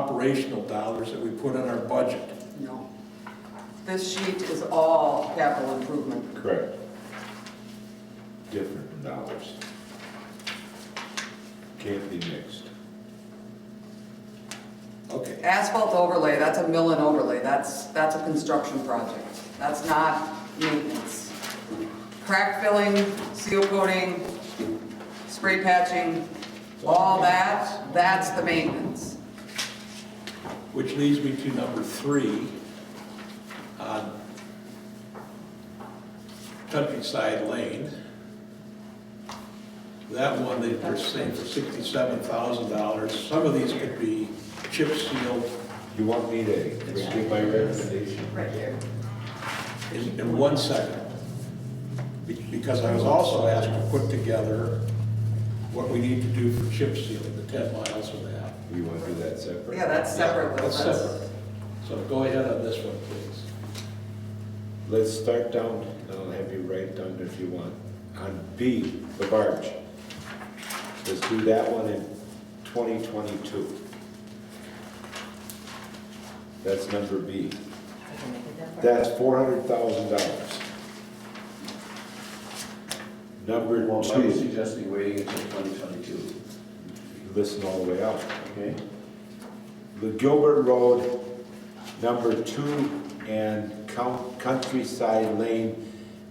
operational dollars that we put in our budget. No. This sheet is all capital improvement. Correct. Different dollars. Can't be mixed. Okay, Asphalt overlay, that's a mill and overlay, that's, that's a construction project, that's not maintenance. Crack filling, seal coating, spray patching, all that, that's the maintenance. which leads me to number three. on Countryside Lane. That one, they are saying for sixty-seven thousand dollars. Some of these could be chip sealed You want me to give my recommendation? Right here. in, in one second. Be- Because I was also asked to put together what we need to do for chip sealing, the ten miles of that. You want to do that separate? Yeah, that's separate though, That's that's, separate. So go ahead on this one, please. Let's start down, and I'll have you write down if you want. On B, the barge. Let's do that one in 2022. That's number B. That's $400,000. Number Well, I would two, suggest we waiting until 2022, listen all the way out. okay? The Gilbert Road, number two, and Coun- Countryside Lane,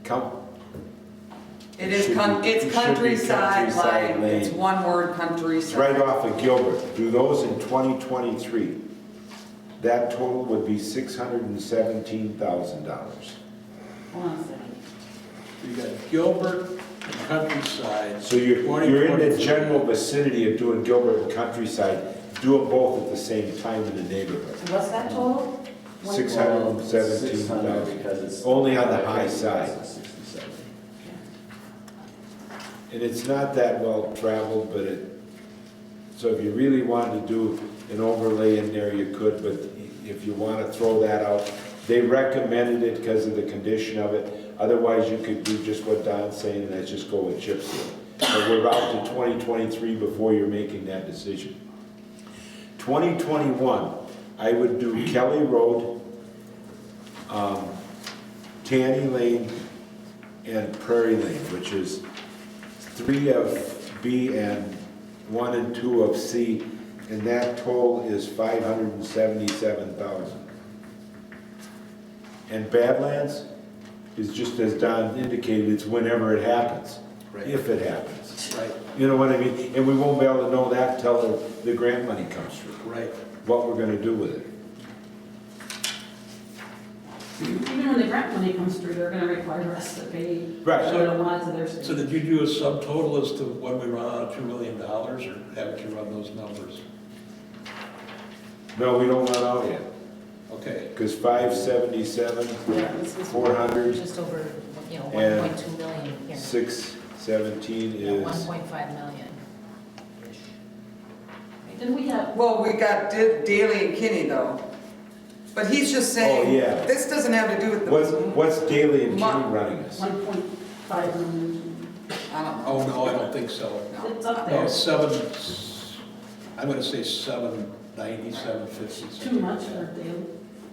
Count, it is, con- It should be- it's it should be countryside countryside line, it's lane. one word It's right countryside. off of Gilbert, do those in 2023. That total would be $617,000. Hold on a second. You got Gilbert and Countryside. So you're, you're in the 2023. general vicinity of doing Gilbert and Countryside, do them both at the same time in the neighborhood. So what's that total? One- Six hundred and seventeen 600 thousand. Because it's. Only on the high side. 67. And it's not that well traveled, but it, so if you really wanted to do an overlay in there, you could, but if you want to throw that out, they recommended it because of the condition of it. Otherwise, you could do just what Don's saying, and that's just go with chip seal. But we're out to 2023 before you're making that decision. 2021, I would do Kelly Road, um, Tanny Lane, and Prairie Lane, which is three of B and one and two of C, and that total is five hundred and seventy-seven thousand. And Badlands is just as Don indicated, it's whenever it happens, Right. if it happens. Right, You know what I mean? And we won't be able to know that till the- the grant money comes through, right. what we're gonna do with it. Even when the grant money comes through, they're gonna require us to pay. Right. A certain amount to their So state. did you do a subtotal as to when we run out of two million dollars, or haven't you run those numbers? No, we don't run out yet, Okay, because five seventy-seven, Yeah, this is four hundred, Just over, you know, And one point two million here. six seventeen One is, point five million. Then we have, Well, we got Da- Daley and Kinney though, but he's just saying, yeah. this doesn't have to do with the. what's, what's Daley and Kenny Mon- running us? one point five million, I don't know. oh, no, I don't think so. it's up No, there, Oh. seven, I'm gonna say seven ninety, seven fifty. it's too much for daily.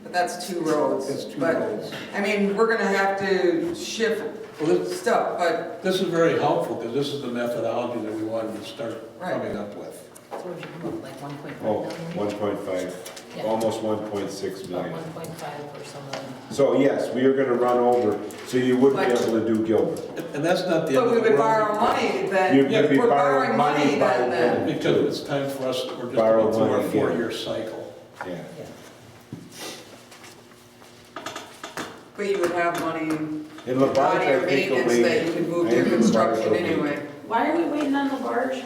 But that's two That's roads, two but, roads. I mean, we're gonna have to shift Well, this, stuff, but, this is very helpful, because this is the methodology that we wanted to start Right. coming up with. So we should move like one point five Oh, million? 1.5, Yeah. almost 1.6 About million. one point five or something. So yes, we are gonna run over, so you wouldn't be But- able to do Gilbert. And- And that's not the end but of we the world, would borrow money You'd then, you'd be we're borrowing borrowing money money by then, then. then. because it's time for us, we're just Borrow going through our money again. four-year cycle. Yeah, But you would have money in in your Labatt, I think it'll maintenance be. that you could move I to your think Labatt construction will be- anyway. Why are we waiting on the barge?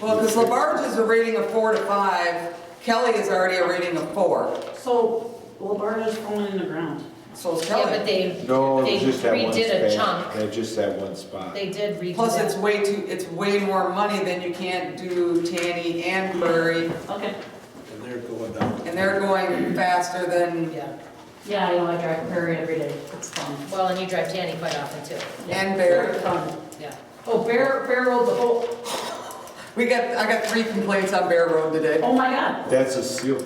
Well, because LaBarge is a rating of four to five, Kelly is already a rating of four, So, well, the barge is falling in the ground. so is Yeah, but Kelly. they, No, they just that one redid a spot. chunk. Yeah, just that one spot. They did redo Plus, it's that. way too, it's way more money than you can't do Tanny and Prairie, Okay, And they're going down. and they're going faster than Yeah. yeah, I know, I drive Prairie every day, it's fun. Well, and you drive Danny quite often too. And Bear. It's fun. Yeah. Oh, Bear, Bear oh, Road, the whole, We got, I got three complaints on Bear Road today. oh my God, That's a seal